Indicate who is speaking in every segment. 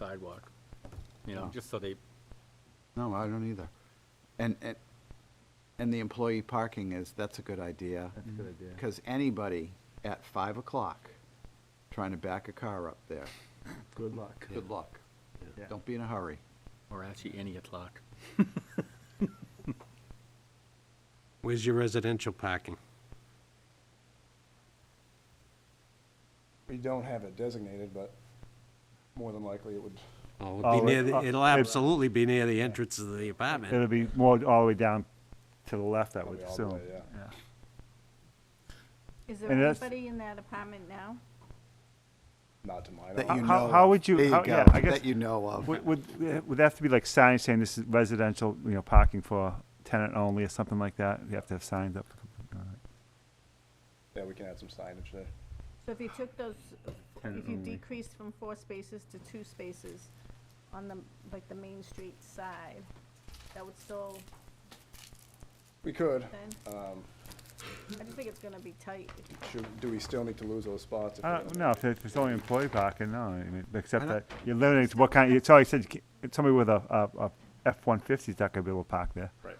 Speaker 1: sidewalk, you know,
Speaker 2: No.
Speaker 1: just so they,
Speaker 2: No, I don't either. And, and, and the employee parking is, that's a good idea.
Speaker 3: That's a good idea.
Speaker 2: Because anybody at five o'clock trying to back a car up there,
Speaker 3: Good luck.
Speaker 2: good luck.
Speaker 3: Yeah.
Speaker 2: Don't be in a hurry.
Speaker 1: or actually any o'clock.
Speaker 4: Where's your residential parking?
Speaker 5: We don't have it designated, but more than likely it would,
Speaker 4: Oh,
Speaker 3: Oh,
Speaker 4: it'll be near,
Speaker 3: uh,
Speaker 4: the- it'll
Speaker 3: it-
Speaker 4: absolutely be near the entrance of the
Speaker 3: It'll
Speaker 4: apartment.
Speaker 3: be more all the way down to the left, I would
Speaker 5: probably all the
Speaker 3: assume.
Speaker 5: way, yeah.
Speaker 3: Yeah.
Speaker 6: Is there
Speaker 3: And that's-
Speaker 6: anybody in that apartment now?
Speaker 5: Not to mine.
Speaker 2: That
Speaker 3: How-
Speaker 2: you
Speaker 5: eye.
Speaker 3: how-
Speaker 2: know
Speaker 3: how
Speaker 2: of.
Speaker 3: would you-
Speaker 2: There
Speaker 3: how-
Speaker 2: go.
Speaker 3: yeah, I guess-
Speaker 2: That you know of.
Speaker 3: Would, would, would that have to be like signs saying this is residential, you know, parking for tenant only or something like that? You have to have signs up. All right.
Speaker 5: Yeah, we can add some signage there.
Speaker 6: So if you took those,
Speaker 3: Tenant
Speaker 6: if you
Speaker 3: only.
Speaker 6: decreased from four spaces to two spaces on the, like, the Main Street side, that would still,
Speaker 5: We could.
Speaker 6: then,
Speaker 5: Um,
Speaker 6: I just think it's gonna be tight.
Speaker 5: should, do we still need to lose those spots? if
Speaker 3: I
Speaker 5: we
Speaker 3: don't
Speaker 5: don't-
Speaker 3: know, if it's only employee parking, no, I mean, except
Speaker 2: I
Speaker 3: that
Speaker 2: don't-
Speaker 3: you're limiting to what kind, it's always said, you can't- somebody with a, a, a F-150 is not gonna be able to park there.
Speaker 5: Right.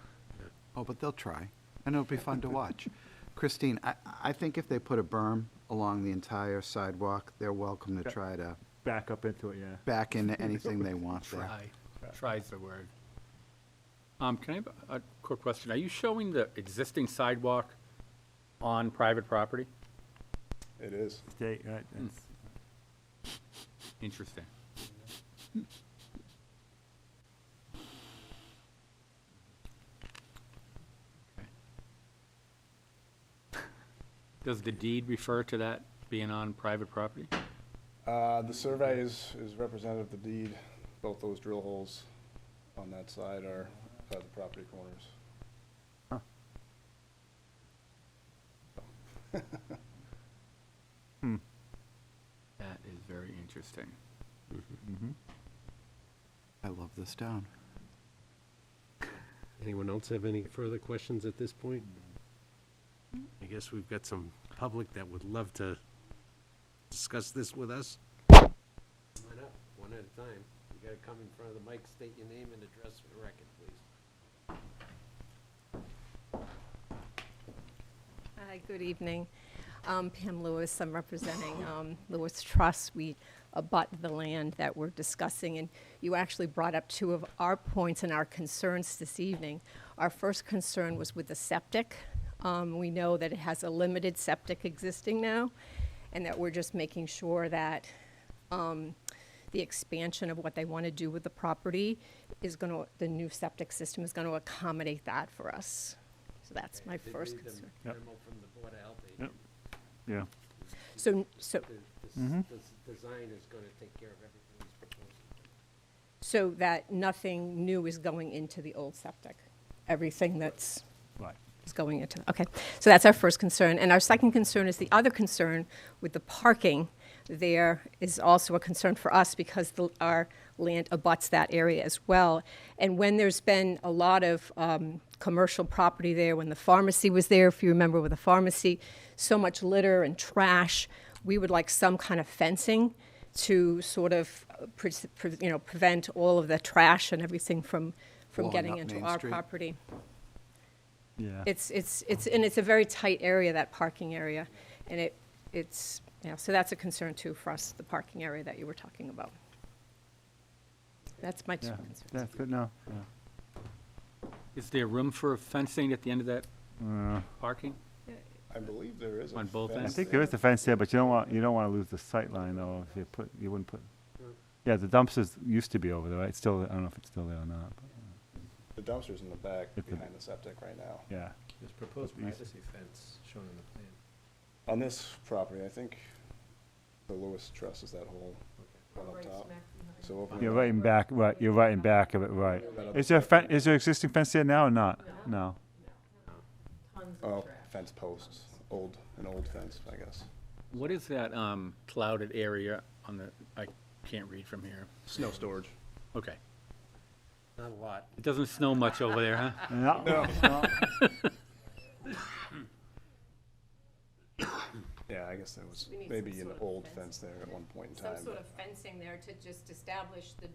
Speaker 2: Oh, but they'll try, and it'll be fun to watch. Christine, I, I think if they put a berm along the entire sidewalk, they're welcome to
Speaker 3: Yep.
Speaker 2: try to
Speaker 3: Back up into it, yeah.
Speaker 2: back into anything they want there.
Speaker 1: Try, try's the word. Um, can I have a a quick question? Are you showing the existing sidewalk on private property?
Speaker 5: It is.
Speaker 3: State, right, that's-
Speaker 1: Interesting. Okay. Does the deed refer to that being on private property?
Speaker 5: Uh, the survey is, is representative of the deed. Both those drill holes on that side are, uh the property corners.
Speaker 1: That is very interesting.
Speaker 2: I love this town.
Speaker 4: Anyone else have any further questions at this point? I guess we've got some public that would love to discuss this with us. Come on up, one at a time. You gotta come in front of the mic, state your name and address for the record, please.
Speaker 7: Hi, good evening. Um, Pam Lewis, I'm representing um, Lewis Trust. We abut the land that we're discussing, and you actually brought up two of our points and our concerns this evening. Our first concern was with the septic. Um, We know that it has a limited septic existing now, and that we're just making sure that um, the expansion of what they want to do with the property is going to, the new septic system is going to accommodate that for us. So that's my
Speaker 4: Did
Speaker 7: first
Speaker 4: read the
Speaker 7: concern.
Speaker 3: Yep.
Speaker 4: memo from the Board of Health
Speaker 3: Yep.
Speaker 4: agent.
Speaker 2: Mm.
Speaker 3: yeah.
Speaker 7: So, so,
Speaker 4: The- the s-
Speaker 3: Mm-hmm.
Speaker 4: the s- design is gonna take care of everything he's proposing.
Speaker 7: so that nothing new is going into the old septic? Everything that's,
Speaker 3: Right.
Speaker 7: is going into, okay. So that's our first concern. And our second concern is the other concern with the parking. There is also a concern for us because the, our land abuts that area as well. And when there's been a lot of, um, commercial property there, when the pharmacy was there, if you remember with the pharmacy, so much litter and trash, we would like some kind of fencing to sort of, uh, pre- pre- you know, prevent all of the trash and everything from, from
Speaker 2: Blowing
Speaker 7: getting
Speaker 2: up
Speaker 7: into
Speaker 2: Main
Speaker 7: our
Speaker 2: Street.
Speaker 7: property.
Speaker 3: Yeah.
Speaker 7: It's, it's, it's, and it's a very tight area, that parking area, and it, it's, you know, so that's a concern too for us, the parking area that you were talking about. That's my two
Speaker 3: Yeah,
Speaker 7: concerns.
Speaker 3: that's good, no, yeah.
Speaker 1: Is there room for fencing at the end of that parking?
Speaker 5: I believe there is. a
Speaker 1: On both
Speaker 3: I
Speaker 5: fence
Speaker 1: ends?
Speaker 3: think there is a fence there, but you don't want, you don't want to lose the sight line though, if you put, you wouldn't put, yeah, the dumpsters used to be over there, right? It's Still, I don't know if it's still there or not, but,
Speaker 5: The dumpster's in the back
Speaker 3: It's a-
Speaker 5: behind the septic right now.
Speaker 3: yeah.
Speaker 8: There's proposed
Speaker 3: But these-
Speaker 8: privacy fence shown in the plan.
Speaker 5: On this property, I think the Lewis Trust is that whole one up top. So over
Speaker 3: You're right in back, right, you're right in back of it, right.
Speaker 5: that up-
Speaker 3: Is there a fen- is there existing fence there now or not? No.
Speaker 5: Oh, fence posts, old, an old fence, I guess.
Speaker 1: What is that um, clouded area on the, I can't read from here.
Speaker 5: Snow storage.
Speaker 1: Okay.
Speaker 4: Not a lot.
Speaker 1: It doesn't snow much over there, huh?
Speaker 3: No.
Speaker 5: Yeah, I guess there was
Speaker 7: We need some
Speaker 5: maybe an
Speaker 7: sort of
Speaker 5: old
Speaker 7: fence.
Speaker 5: fence there at one point in
Speaker 7: Some
Speaker 5: time.
Speaker 7: sort
Speaker 5: but-
Speaker 7: of fencing there to just establish the